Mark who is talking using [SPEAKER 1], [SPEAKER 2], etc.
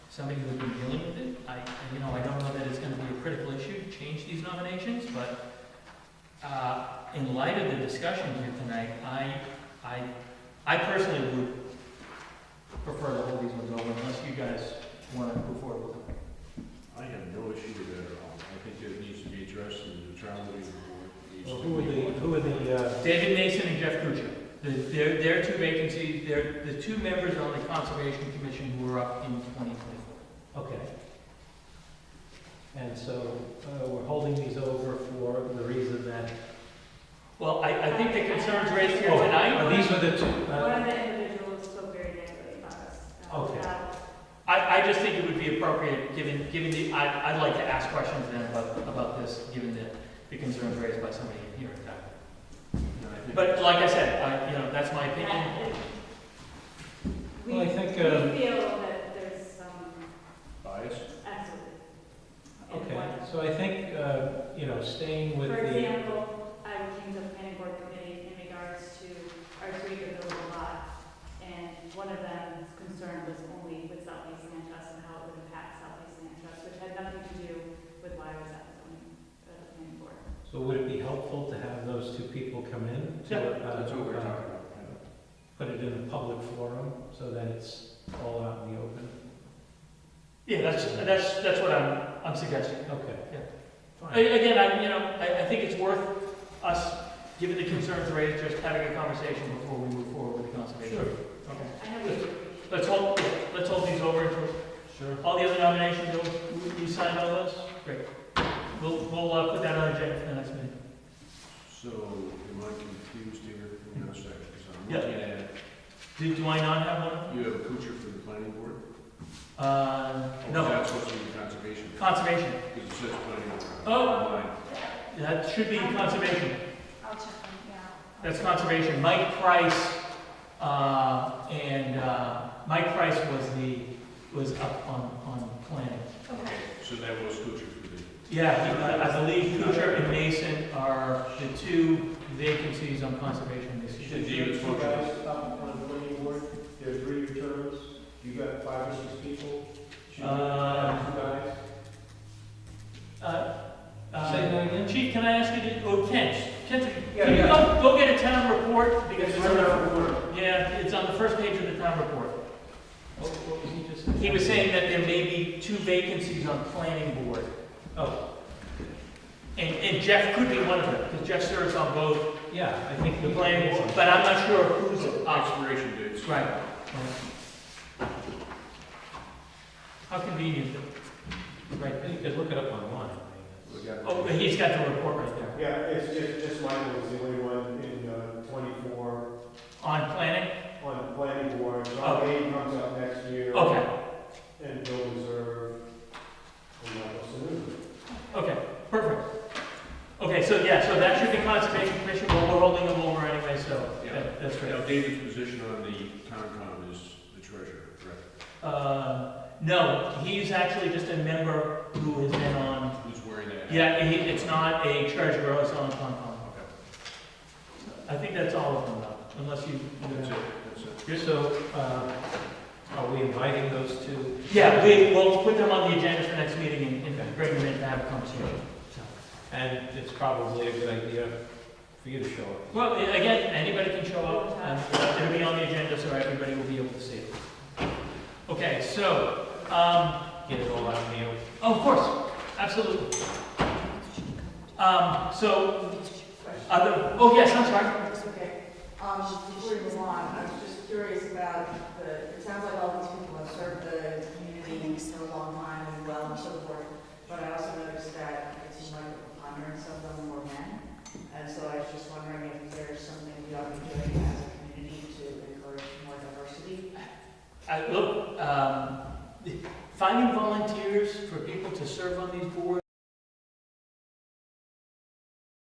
[SPEAKER 1] somebody who's been dealing with it. I, you know, I don't know that it's gonna be a critical issue to change these nominations, but, uh, in light of the discussion here tonight, I, I, I personally would prefer to hold these ones over unless you guys wanna move forward with them.
[SPEAKER 2] I have no issue with that at all. I think it needs to be addressed and the neutrality of the board needs to
[SPEAKER 3] Well,
[SPEAKER 2] be.
[SPEAKER 3] who are the, who are the, uh,
[SPEAKER 1] David Mason and Jeff Kuchar, The- they're, they're two vacancies, they're the two members on the Conservation Commission who were up in twenty twenty-four.
[SPEAKER 3] okay. And so, uh, we're holding these over for the reason that.
[SPEAKER 1] Well, I, I think the concerns raised here
[SPEAKER 3] Oh, uh,
[SPEAKER 1] tonight,
[SPEAKER 3] These are the two,
[SPEAKER 4] One
[SPEAKER 3] uh,
[SPEAKER 4] of the individuals spoke very negatively about us. uh,
[SPEAKER 3] Okay.
[SPEAKER 4] about-
[SPEAKER 1] I, I just think it would be appropriate, given, given the, I, I'd like to ask questions then about, about this, given the, the concerns raised by somebody in here in fact.
[SPEAKER 2] And I think-
[SPEAKER 1] But like I said, I, you know, that's my opinion.
[SPEAKER 4] that- We,
[SPEAKER 3] Well, I
[SPEAKER 4] we
[SPEAKER 3] think, uh,
[SPEAKER 4] feel that there's some,
[SPEAKER 2] Bias?
[SPEAKER 4] absolutely. in
[SPEAKER 3] okay,
[SPEAKER 4] what-
[SPEAKER 3] so I think, uh, you know, staying with
[SPEAKER 4] For
[SPEAKER 3] the,
[SPEAKER 4] example, I would change the planning board committee in regards to our three buildable lots. And one of them's concern was only with Southeast Manchester and how it would impact Southeast Manchester, which had nothing to do with why I was at the zoning, uh, planning board.
[SPEAKER 3] so would it be helpful to have those two people come in? to,
[SPEAKER 1] Yeah,
[SPEAKER 3] uh,
[SPEAKER 2] That's what we're
[SPEAKER 3] uh,
[SPEAKER 2] talking about. yeah.
[SPEAKER 3] Put it in a public forum so that it's all out in the open?
[SPEAKER 1] Yeah, that's, that's, that's what I'm, I'm suggesting.
[SPEAKER 3] Okay.
[SPEAKER 1] Yeah. A-
[SPEAKER 3] Fine.
[SPEAKER 1] Again, I, you know, I, I think it's worth us, given the concerns raised, just having a conversation before we move forward with the conservation.
[SPEAKER 3] Sure.
[SPEAKER 1] Okay.
[SPEAKER 4] I know we appreciate.
[SPEAKER 1] Let's hold, let's hold these over until
[SPEAKER 3] Sure.
[SPEAKER 1] All the other nominations, you- you signed all those? Great. We'll, we'll uh, put that on the agenda for the next meeting.
[SPEAKER 2] So am I confused here? Hang on a second, 'cause I'm
[SPEAKER 1] Yeah.
[SPEAKER 2] looking at,
[SPEAKER 1] Do, do I not have one?
[SPEAKER 2] you have Kuchar for the planning board?
[SPEAKER 1] Uh,
[SPEAKER 2] Oh,
[SPEAKER 1] no,
[SPEAKER 2] That's supposed to be conservation.
[SPEAKER 1] conservation.
[SPEAKER 2] Because it says planning board.
[SPEAKER 1] Oh.
[SPEAKER 2] Mine.
[SPEAKER 1] That should be conservation.
[SPEAKER 4] I'll check on, yeah.
[SPEAKER 1] That's conservation. Mike Price, uh, and, uh, Mike Price was the, was up on, on planning.
[SPEAKER 4] Okay.
[SPEAKER 2] So that was Kuchar for the,
[SPEAKER 1] Yeah, I I believe Kuchar and Mason are the two vacancies on conservation this
[SPEAKER 2] And
[SPEAKER 1] year.
[SPEAKER 2] David's
[SPEAKER 5] You guys
[SPEAKER 2] motion.
[SPEAKER 5] up on the planning board, there are three terms, you got five or six people. Should we
[SPEAKER 1] Uh,
[SPEAKER 5] have two guys?
[SPEAKER 1] Uh, uh,
[SPEAKER 3] Say that again?
[SPEAKER 1] Chief, can I ask you, to- oh, Kent, Kent,
[SPEAKER 5] Yeah,
[SPEAKER 1] can you
[SPEAKER 5] yeah.
[SPEAKER 1] go, go get a town report? Because
[SPEAKER 5] It's
[SPEAKER 1] it's on
[SPEAKER 5] right
[SPEAKER 1] the,
[SPEAKER 5] around the corner.
[SPEAKER 1] yeah, it's on the first page of the town report.
[SPEAKER 3] What what was he just?
[SPEAKER 1] He was saying that there may be two vacancies on planning board.
[SPEAKER 3] Oh,
[SPEAKER 1] And, and Jeff could be one of them, because Jeff serves on both
[SPEAKER 3] yeah, I think.
[SPEAKER 1] the
[SPEAKER 3] he-
[SPEAKER 1] planning board, but I'm not sure who's up.
[SPEAKER 2] expiration dates.
[SPEAKER 1] Right. How convenient. Right.
[SPEAKER 3] You could look it up online.
[SPEAKER 2] We got-
[SPEAKER 1] Oh, but he's got the report right there.
[SPEAKER 5] Yeah, it's just, just Michael was the only one in uh, twenty-four
[SPEAKER 1] On planning?
[SPEAKER 5] on the planning board. John Hay comes up next year.
[SPEAKER 1] Okay,
[SPEAKER 5] And Bill Reserve, and Michael Sanu.
[SPEAKER 1] okay, perfect. Okay, so yeah, so that should be conservation commission, but we're holding them over anyway, so
[SPEAKER 2] Yeah.
[SPEAKER 1] that- that's great.
[SPEAKER 2] Now, David's position on the Concom is the treasurer, correct?
[SPEAKER 1] Uh, no, he's actually just a member who has been on,
[SPEAKER 2] Who's wearing that? hat?
[SPEAKER 1] yeah, he, it's not a treasurer, it's on Concom.
[SPEAKER 2] Okay.
[SPEAKER 1] I think that's all of them though, unless you.
[SPEAKER 2] That's it, that's it.
[SPEAKER 3] So, uh, are we inviting those two?
[SPEAKER 1] Yeah, we, we'll put them on the agenda for next meeting and, and bring them in to have a conversation. So-
[SPEAKER 3] And it's probably a good idea for you to show up.
[SPEAKER 1] Well, i- again, anybody can show up, and uh, it'll be on the agenda, so everybody will be able to see it. Okay, so, um, oh,
[SPEAKER 3] Get it all out in the open.
[SPEAKER 1] of course, absolutely. Um, so, other, oh, yes, I'm sorry.
[SPEAKER 6] It's okay. Um, before you move on, I was just curious about the, it sounds like all these people have served the community for a long time and well and so forth. But I also noticed that it seems like the preponderance of them were men. And so I was just wondering if there's something we ought to be doing as a community to encourage more diversity.
[SPEAKER 1] I, look, um, finding volunteers for people to serve on these boards